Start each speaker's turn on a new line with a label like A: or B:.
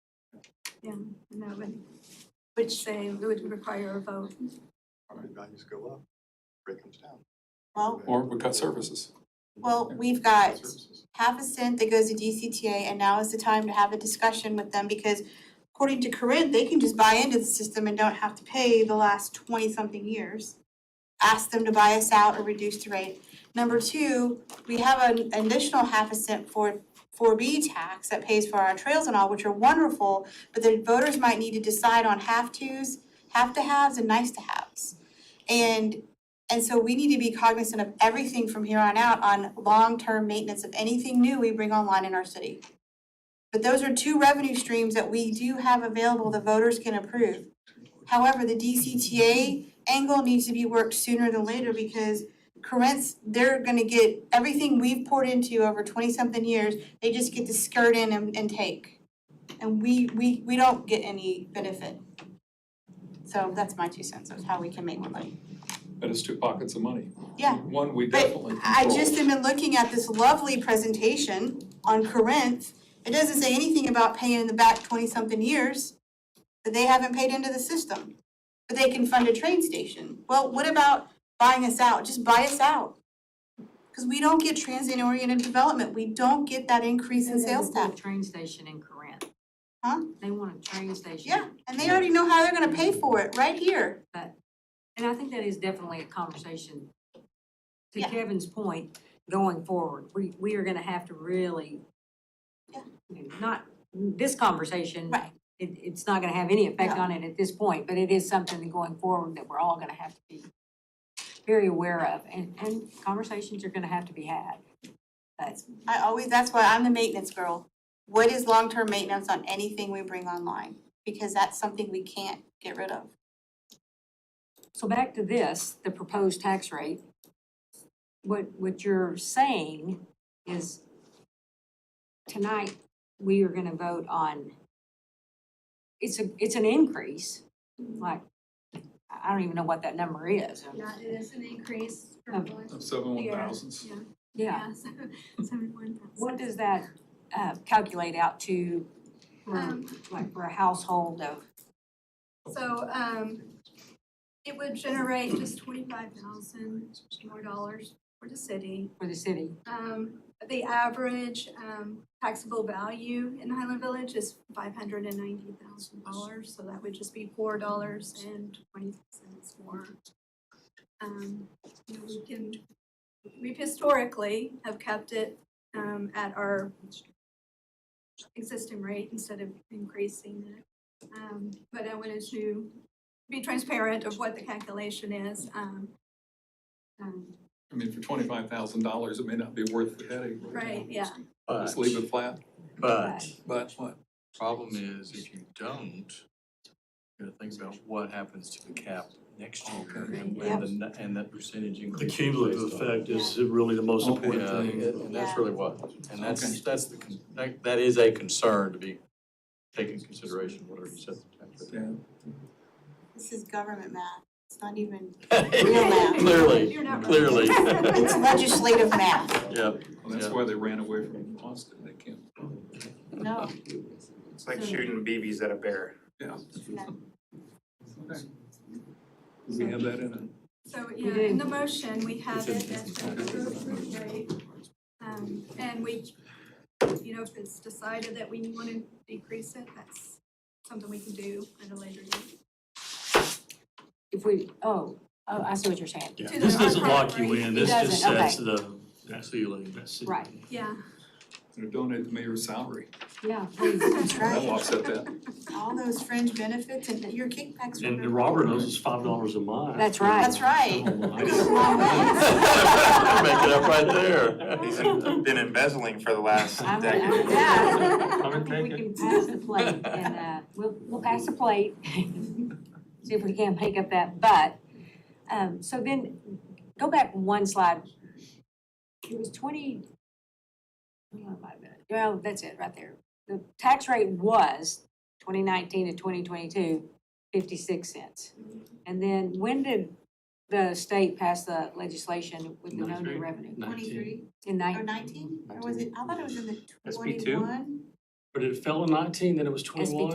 A: Yeah, and that would, which say would require a vote.
B: property values go up, rate comes down.
C: Well,
D: Or we cut services.
C: well, we've got
B: Services.
C: half a cent that goes to DCTA and now is the time to have a discussion with them because according to Corinne, they can just buy into the system and don't have to pay the last twenty something years. Ask them to buy us out or reduce the rate. Number two, we have an additional half a cent for four B tax that pays for our trails and all, which are wonderful, but the voters might need to decide on have tos, have to haves and nice to haves. And and so we need to be cognizant of everything from here on out on long-term maintenance of anything new we bring online in our city. But those are two revenue streams that we do have available the voters can approve. However, the DCTA angle needs to be worked sooner than later because Corinth, they're gonna get everything we've poured into over twenty-something years, they just get to skirt in and, and take. And we, we, we don't get any benefit. So that's my two cents of how we can make more money.
D: That is two pockets of money.
C: Yeah.
D: One we
C: But
D: definitely
C: I
D: control.
C: just have been looking at this lovely presentation on Corinth. It doesn't say anything about paying in the back twenty-something years, that they haven't paid into the system. But they can fund a train station. Well, what about buying us out? Just buy us out. Because we don't get transient-oriented development. We don't get that increase in sales tax.
E: Train station in Corinth.
C: Huh?
E: They want a train station.
C: Yeah, and they already know how they're gonna pay for it, right here.
E: And I think that is definitely a conversation, to
C: Yeah.
E: Kevin's point, going forward. We, we are gonna have to really,
C: Yeah.
E: you know, not, this conversation.
C: Right.
E: It, it's not gonna have any effect
C: No.
E: on it at this point, but it is something that going forward that we're all gonna have to be very aware of, and, and conversations are gonna have to be had. That's,
C: I always, that's why I'm the maintenance girl. What is long-term maintenance on anything we bring online? Because that's something we can't get rid of.
E: So back to this, the proposed tax rate. What, what you're saying is tonight, we are gonna vote on, it's a, it's an increase, like, I I don't even know what that number is.
F: Yeah, it is an increase
E: Oh.
F: from what,
D: Of seven one
F: Yeah.
D: thousands.
F: yeah,
E: Yeah,
F: yeah, so, seventy-one thousand.
E: what does that, uh, calculate out to, for,
F: Um,
E: like, for a household of,
F: so, um, it would generate just twenty-five thousand more dollars for the city.
E: for the city?
F: Um, the average, um, taxable value in Highland Village is five hundred and ninety thousand dollars, so that would just be four dollars and twenty cents more. Um, you know, we can, we've historically have kept it, um, at our existing rate instead of increasing it. Um, but I wanted to be transparent of what the calculation is, um, um,
D: I mean, for twenty-five thousand dollars, it may not be worth the headache.
F: right, yeah.
D: Just leave it flat,
G: But,
D: but what?
G: but, problem is, if you don't, you gotta think about what happens to the cap next year and when the, n- and that percentage
H: The
G: increase. is
H: cumulative
G: based on.
H: effect is really the most important
G: Yeah,
H: thing.
G: and that's really what, and
D: Okay.
G: that's, that's the, con- that, that is a concern to be taken into consideration, whatever you set the tax rate.
D: Yeah.
C: This is government math. It's not even, Real math.
G: Clearly,
F: You're not right.
G: clearly,
C: it's legislative math.
G: yeah.
D: Well, that's
G: Yeah.
D: why they ran away from Austin, they can't.
C: No.
I: It's like shooting BBs at a bear.
D: Okay. Do we have that in it?
F: So,
E: We
F: yeah, in
E: do.
F: the motion, we have
D: It's
F: it
D: in-
F: as the approved rate. Um, and we, you know, if it's decided that we want to decrease it, that's something we can do at a later date.
E: If we, oh, oh, I see what you're saying.
H: Yeah,
F: To
H: This
F: the
H: doesn't
F: hard
H: lock you
F: part,
H: in,
E: It
H: this just
E: doesn't,
H: sets the ceiling. That's it.
E: Right.
F: Yeah,
D: Or donate the mayor's salary,
E: Yeah, please.
C: That's
D: that'll
C: right.
D: offset that.
C: All those fringe benefits and your kickbacks.
H: And
C: remember.
H: Robert knows it's five dollars a mile.
E: That's right.
C: That's right.
H: Oh, my.
C: It's a long ways.
G: Make it up right there.
I: He's been embezzling for the last
E: I'm,
I: decade.
E: I'm, yeah.
H: Come and
E: I
H: take
E: think
H: it.
E: we can pass the plate and, uh, we'll, we'll pass the plate. See if we can pick up that, but, um, so then, go back one slide. It was twenty, hang on a minute, well, that's it, right there. The tax rate was twenty nineteen to 2022, 56 cents. And then when did the state pass the legislation with the no new
G: Ninety-three.
E: revenue?
C: Twenty-three
E: In
C: or
E: nineteen,
C: nineteen? Or was it, I thought it was in the
G: SB2?
C: twenty-one.
H: But it fell in nineteen, then it was
E: SB2.
H: twenty-one.